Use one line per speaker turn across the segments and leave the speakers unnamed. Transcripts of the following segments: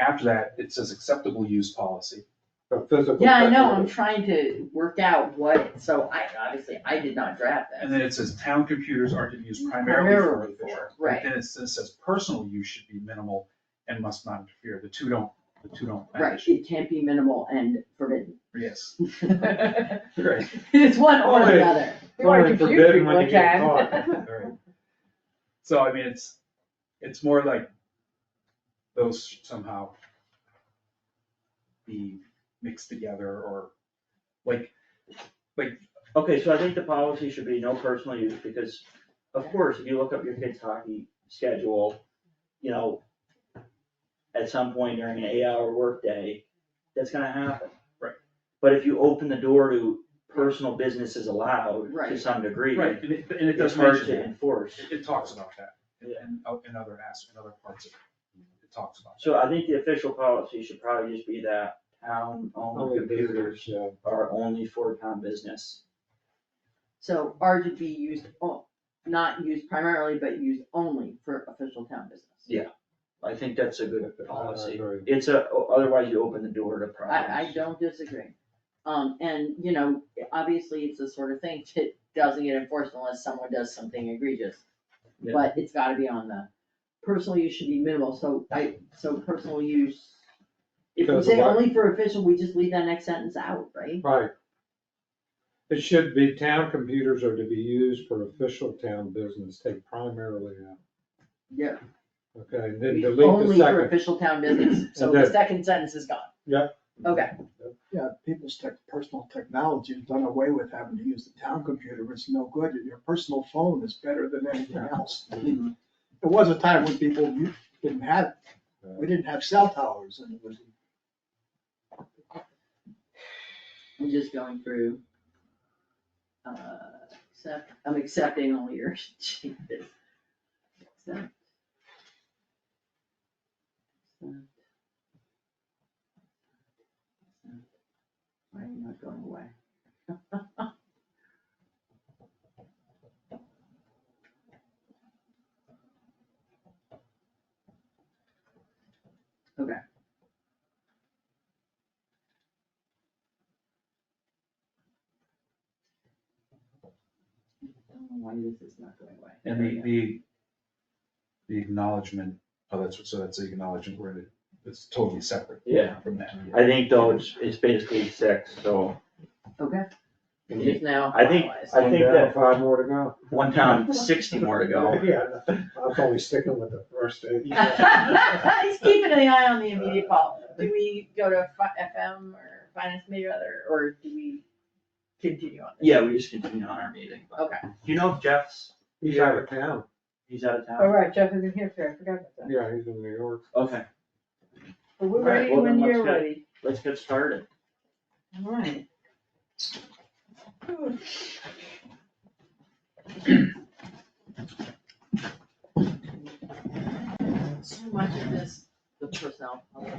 after that, it says acceptable use policy.
A physical.
Yeah, I know, I'm
separation.
trying to work out what, so I, obviously, I did not draft
And
that.
then it says town computers are to be used primarily for
Primarily for,
official.
right.
Then it says, says personal use should be minimal and must not interfere. The two don't, the two don't
Right,
match.
it can't be minimal and forbidden.
Yes.
Right.
It's one or
Only-
the other.
You wanna
Only
confuse
forbidden
people,
when you
I
get
can.
caught.
Right. So I mean, it's, it's more like those should somehow be mixed together or like,
Okay, so I think the policy should be no personal use, because of course, if you look up your kid's hockey schedule, you know, at some point during an eight-hour workday, that's gonna happen.
Right.
But if you open the door to personal businesses allowed to
Right.
some degree,
right, and it, and it
it's
does
hard
mention
to
that.
enforce.
It, it talks about that in,
Yeah.
in o- in other as, in other parts of it. It talks about.
So I think the official policy should probably just be that town-owned
Only
computers
computers, yeah.
are only for town business.
So are to be used, o- not used primarily, but used only for official town business.
I think that's a good
I
policy.
agree.
It's a, otherwise you open the door to problems.
I, I don't disagree. Um, and, you know, obviously, it's the sort of thing that doesn't get enforced unless someone does something egregious.
Yeah.
But it's gotta be on the, personal use should be minimal, so I, so personal use. If we
Because
say
what-
only for official, we just leave that next sentence out, right?
Right. It should be town computers are to be used for official town business, take primarily out,
Yeah.
okay, and then
Be
delete the
Only for
second.
official town business, so
And
the
then-
second sentence is gone.
Yep.
Okay,
Yeah, people's tech, personal technology has done away with having to use the town computer, it's no good, your personal phone is better than anything else. There was a time when people u- didn't have, we didn't have cell towers, and it was,
I'm just going through. Uh, accept, I'm accepting all your changes. Accept. Accept. Why are you not going away? Okay. I don't know why this is not going away.
And the, the, the acknowledgement, oh, that's, what- so that's the acknowledgement where it, it's totally separate.
Yeah.
From that.
I think though, it's, it's basically six, so.
Okay, it is now
I think-
finalized.
I think
One down,
that-
Five more to go.
One town, sixty more to go.
Yeah, I'm only sticking with the first eight.
He's keeping an eye on the immediate call. Do we go to fi- FM or finance committee or other, or do we continue on this?
Yeah, we just continue on our meeting.
Okay.
Do you know if Jeff's,
He's out of town,
he's out of town?
All Oh, right, Jeff is in here, I forgot about that.
yeah, he's in New York.
Okay,
But we're
All right,
ready
well, then
when
let's
you're
go.
ready.
let's get started.
All right.
So much of this, the personnel. policy.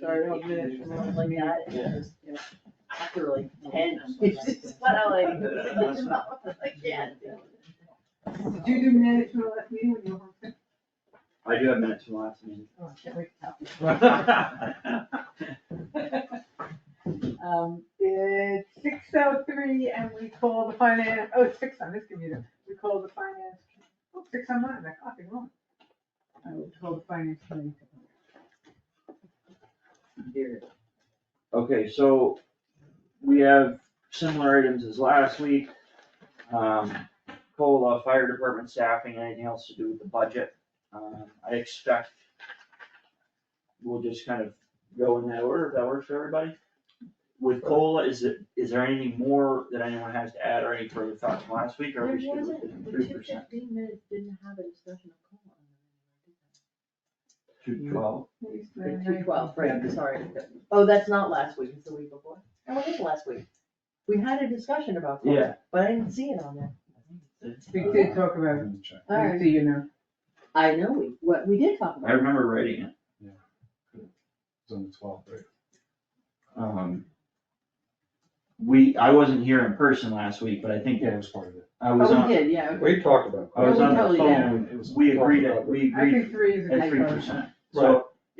Sorry, I'll manage from one
Like that, it's
Yeah.
just, you know, After like ten, it's just kind of like, I can't.
Do you do minutes from that meeting when you're?
I do have minutes from last meeting.
Oh, I can't wait. Um, it's six oh three and we call the finance, oh, it's six on this computer. We call the finance, oh, six on mine, I copied wrong. I will call the finance committee.
Here.
Okay, so we have similar items as last week. Um, COLA, fire department staffing, anything else to do with the budget? Um, I expect we'll just kind of go in that order, if that works for everybody. With COLA, is it, is there anything more that anyone has to add or any further thoughts from last week, or are we
There
still
wasn't,
with the
the
three
two
percent?
fifteen minutes didn't have a discussion of COLA.
Two twelve.
The two twelve, right, sorry. Oh, that's not last week, it's the week before. No, it is last week. We had a discussion about
Yeah.
COLA, but I didn't see it on there.
We did talk about it,
Check.
All right.
so you know.
I know, we, what, we did talk
I
about it.
remember writing it.
It's on the twelfth, right?
Um, we, I wasn't here in person last week, but I think
Yeah, it
that
was part of it.
I was on.
Oh, we did, yeah, okay.
We talked about.
I was
Yeah, we
on the
totally did.
phone, we agreed at, we
I
agreed
think three is a
at
typo.
three percent. So